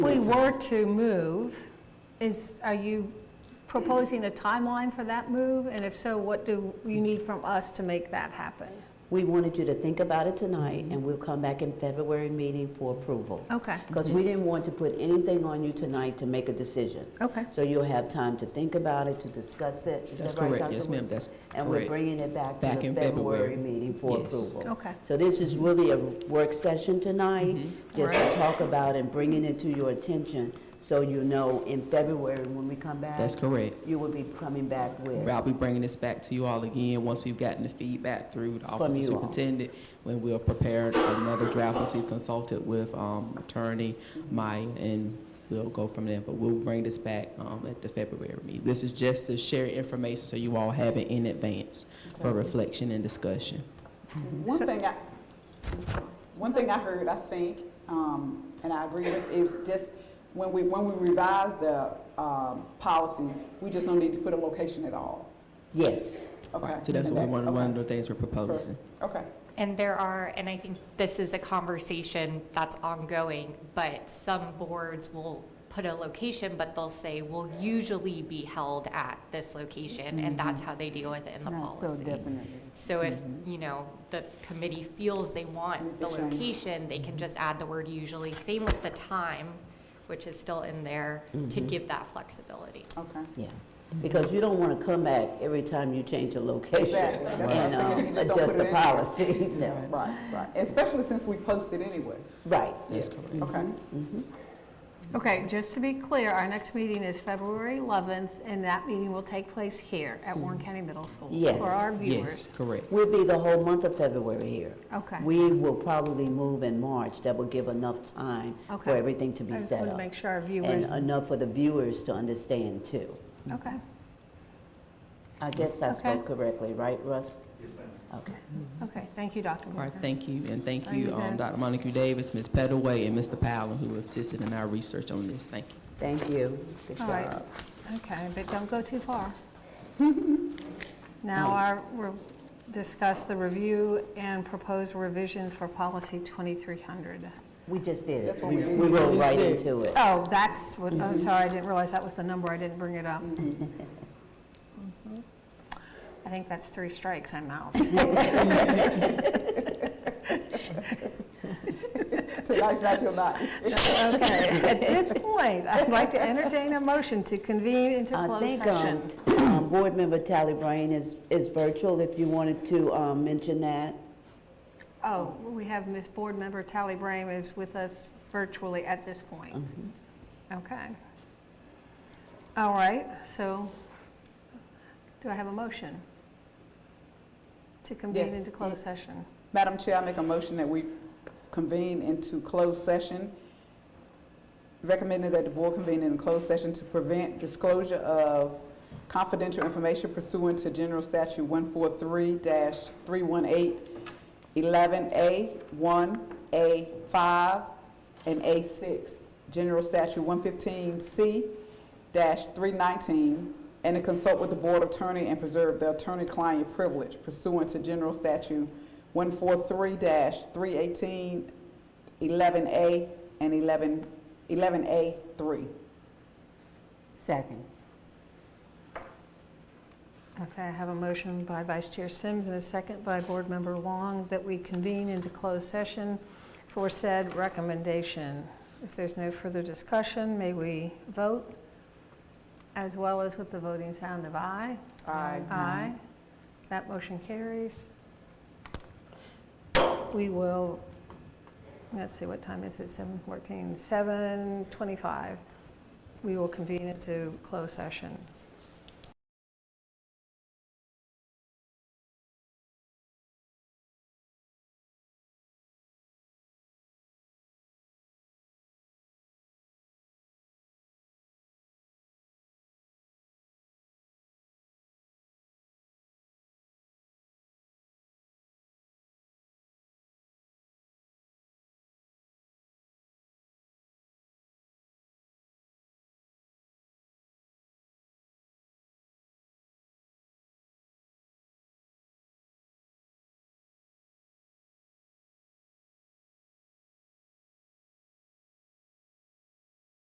we were to move, is, are you proposing a timeline for that move? And if so, what do you need from us to make that happen? We wanted you to think about it tonight, and we'll come back in February meeting for approval. Okay, Because we didn't want to put anything on you tonight to make a decision. okay. So you'll have time to think about it, to discuss it. Is That's that right, correct, Dr. yes, ma'am, Wood? that's And we're correct. bringing it back to Back the in February February. meeting for Yes. approval. Okay. So this is really a work session tonight, Mm-hmm. just to talk about and bringing it to your attention, so you know in February when we come back. That's correct. You will be coming back with. I'll be bringing this back to you all again, once we've gotten the feedback through the Office of you all. Superintendent, when we'll prepare another draft, once we've consulted with um, Attorney Maya, and we'll go from there. But we'll bring this back um, at the February meeting. This is just to share information, so you all have it in advance for reflection and discussion. One So- thing I, one thing I heard, I think, um, and I agree with, is just when we, when we revise the, um, policy, we just don't need to put a location at all, Yes. okay? So that's what we one one of the things we're Okay. proposing. Okay, And there are, and I think this is a conversation that's ongoing, but some boards will put a location, but they'll say, will usually be held at this location, and Mm-hmm. that's how they deal with it in the policy. So if, you know, the committee feels they want the Mm-hmm. They change. location, they can just add the word usually. Same with the time, which is still in there, to give that flexibility. okay. Yeah, because you don't want to come back every time you change a location Exactly. That's what I'm and saying. um, You just don't adjust put the it in there. policy. No. Right, right, especially since we posted anyway, Right. That's correct. okay? Mm-hmm. Okay, just to be clear, our next meeting is February 11th, and that meeting will take place here at Warren County Middle School. Yes, For our Yes, viewers. correct. We'll be the whole month of February here. Okay. We will probably move in March. That will give enough time for Okay. everything to be I just set wanna up. make sure our viewers- And enough for the viewers to understand too. Okay. I guess I Okay. spoke correctly, right, Russ? Okay. Okay, thank you, Dr. All right, Walker. thank you, and thank Thank you, you, um, guys. Dr. Monica Davis, Ms. Pettaway, and Mr. Powell, who assisted in our research on this. Thank you. Thank you. Good All right, job. okay, but don't go too far. Now, our, we'll discuss the review and proposed revisions for policy 2300. We just did it. That's what We we did. we rolled right into it. Oh, that's what, I'm sorry, I didn't realize that was the number, I didn't bring it up. I think that's three strikes, I'm out. Tonight's not your night. Okay, at this point, I'd like to entertain a motion to convene into I closed think session. um, um, Board Member Tally Brain is is virtual, if you wanted to um, mention that. Oh, we have Miss Board Member Tally Brame is with us virtually at this Mm-hmm. point. Okay. All right, so do I have a motion to convene Yes. into closed session? Madam Chair, I make a motion that we convene into closed session, recommending that the board convene in closed session to prevent disclosure of confidential information pursuant to General Statute 143-318, 11A, 1A, 5, and A6, General Statute 115C-319, and to consult with the board attorney and preserve the attorney-client privilege pursuant to General Statute 143-318, 11A, and 11, 11A3. Second. Okay, I have a motion by Vice Chair Sims and a second by Board Member Wong that we convene into closed session for said recommendation. If there's no further discussion, may we vote, as well as with the voting sound of aye? Aye. Aye. That motion carries. We will, let's see, what time is it? 7:14, 7:25. We will convene into closed session.